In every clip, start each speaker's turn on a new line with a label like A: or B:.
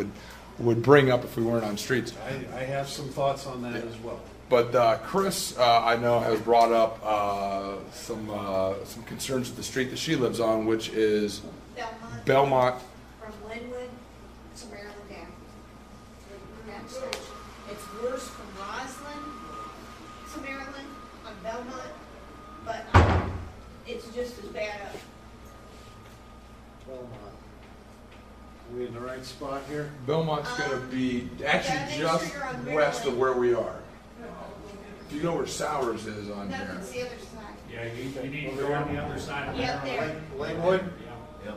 A: would- would bring up if we weren't on streets.
B: I, I have some thoughts on that as well.
A: But uh, Chris, uh, I know, has brought up uh, some uh, some concerns with the street that she lives on, which is
C: Belmont.
A: Belmont.
C: From Linwood to Maryland Down. Maryland Station. It's worse from Roslyn to Maryland on Belmont, but um, it's just as bad up.
B: Belmont. Are Uh, we in the right spot here?
A: Belmont's going to be
C: Um, Yeah, make
A: actually
C: sure
A: just
C: you're on
A: west of
C: Maryland.
A: where we are. Do you know where Sowers is on
C: No,
A: here?
C: it's the other side.
D: Yeah, you, you need to go on the other side of
C: Yeah,
D: that.
C: there.
B: Lang- Langwood?
D: Yeah.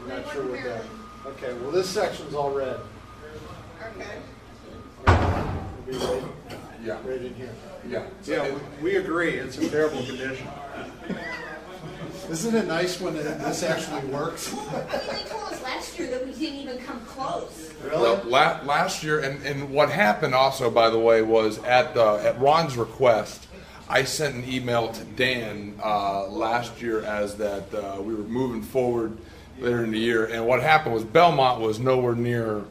B: I'm not
C: Langwood,
B: sure what that.
C: Maryland.
B: Okay, well, this section's all red.
C: Okay.
B: It'll be right,
A: Yeah,
B: right in here.
A: yeah. So
B: Yeah,
A: it-
B: we- we agree, it's a terrible condition. Isn't it nice when it- this actually works?
C: Well, they told us last year that we didn't even come close.
A: Well, la- last year, and, and what happened also, by the way, was at the at Ron's request, I sent an email to Dan uh, last year as that uh, we were moving forward later in the year, and what happened was Belmont was nowhere near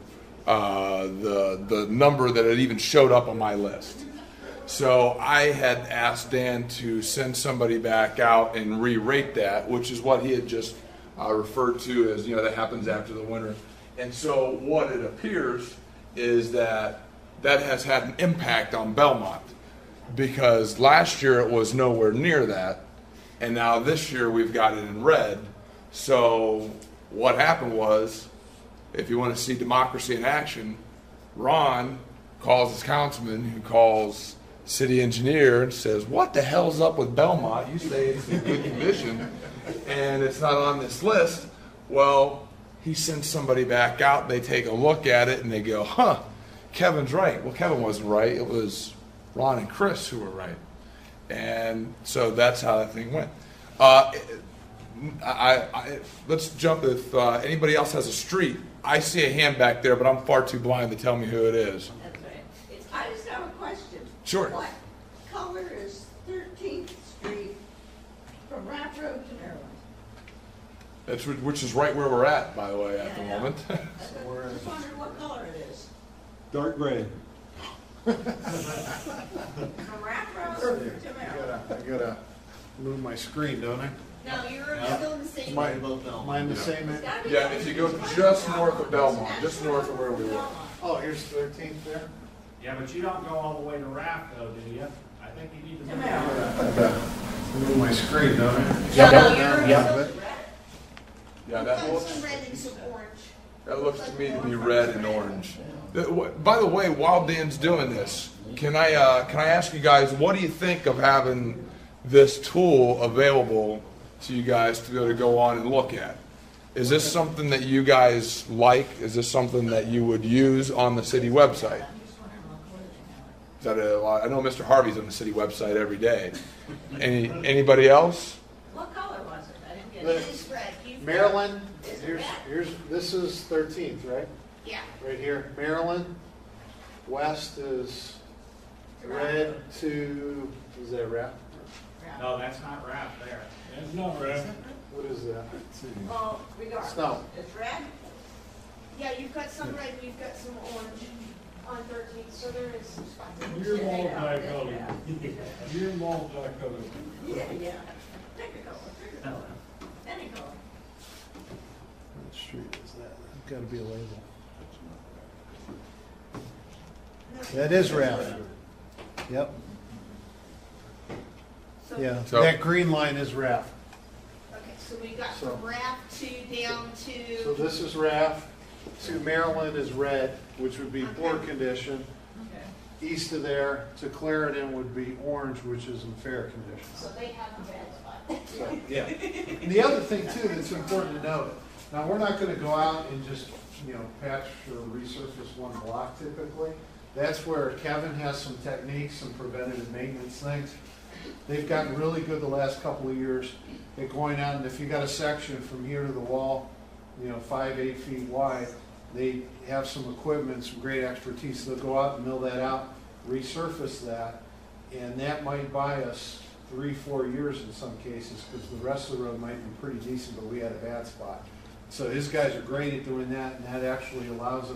A: uh, the the number that had even showed up on my list. So I had asked Dan to send somebody back out and re-rate that, which is what he had just uh, referred to as, you know, that happens after the winter. And so what it appears is that that has had an impact on Belmont because last year it was nowhere near that, and now this year we've got it in red. So what happened was, if you want to see democracy in action, Ron calls his councilman, who calls city engineer, and says, "What the hell's up with Belmont? You say it's in good condition, and it's not on this list." Well, he sends somebody back out. They take a look at it and they go, "Huh, Kevin's right." Well, Kevin wasn't right. It was Ron and Chris who were right, and so that's how that thing went. Uh, I, I, let's jump if uh, anybody else has a street. I see a hand back there, but I'm far too blind to tell me who it is.
E: I just have a question.
A: Sure.
E: What color is Thirteenth Street from Raft Road to Maryland?
A: That's wh- which is right where we're at, by the way, at the
E: Yeah.
A: moment.
E: I just wondered what color it is.
F: Dark gray.
E: From Raft Road
B: There.
E: to
B: I
E: Maryland.
B: gotta, I gotta move my screen, don't I?
C: No, you're still in the same.
B: Mine, mine the same, eh?
E: It's gotta be
A: Yeah,
E: that
A: if you go
E: because
A: just
E: Belmont-
A: north of Belmont, just north of where we were.
E: Belmont.
B: oh, here's thirteenth there?
D: Yeah, but you don't go all the way to Raft though, do you? I think you need to.
E: To Maryland.
B: Move my screen, don't I?
C: No, no, you're
B: Yeah.
C: still.
A: Yeah, that
C: Comes
A: looks
C: from red into orange.
A: that looks to me to be red and orange. That- wh- By the way, while Dan's doing this, can I uh, can I ask you guys what do you think of having this tool available to you guys to be able to go on and look at? Is this something that you guys like? Is this something that you would use on the city website?
E: I'm just wondering what color they
A: Is that a lot? I know Mr. Harvey's on the city website every day. Any anybody else?
E: have. What color was it? I didn't get
B: Look.
E: it.
C: It is red. You've got-
B: Maryland, here's, here's, this is thirteenth, right?
C: Yeah.
B: Right here, Maryland, west is red to, is that red?
D: No, that's not Raft there.
G: That's not right.
B: What is that?
E: Well, regardless,
B: Snow.
E: it's red.
C: Yeah, you've got some red, you've got some orange on thirteenth, so there is some spots.
G: You're multicolored. You're multicolored.
E: Yeah, yeah. Pick a color, pick a color. Any color.
B: What street is that? Gotta be a label. That is red. Yep,
C: So-
A: So-
B: That green line is RAF.
C: Okay, so we got
B: So-
C: from Raft to down
B: So
C: to,
B: this is RAF, to Maryland is red, which would be poor
C: Okay.
B: condition.
E: Okay.
B: East of there, to Clarendon would be orange, which is in fair condition.
E: So they have a red spot.
B: So, yeah. And the other thing too that's important to note, now, we're not gonna go out and just, you know, patch or resurface one block typically. That's where Kevin has some techniques, some preventative maintenance things. They've gotten really good the last couple of years at going out, and if you got a section from here to the wall, you know, five, eight feet wide, they have some equipment, some great expertise, they'll go out and mill that out, resurface that, and that might buy us three, four years in some cases, because the rest of the road might be pretty decent, but we had a bad spot. So his guys are great at doing that, and that actually allows us.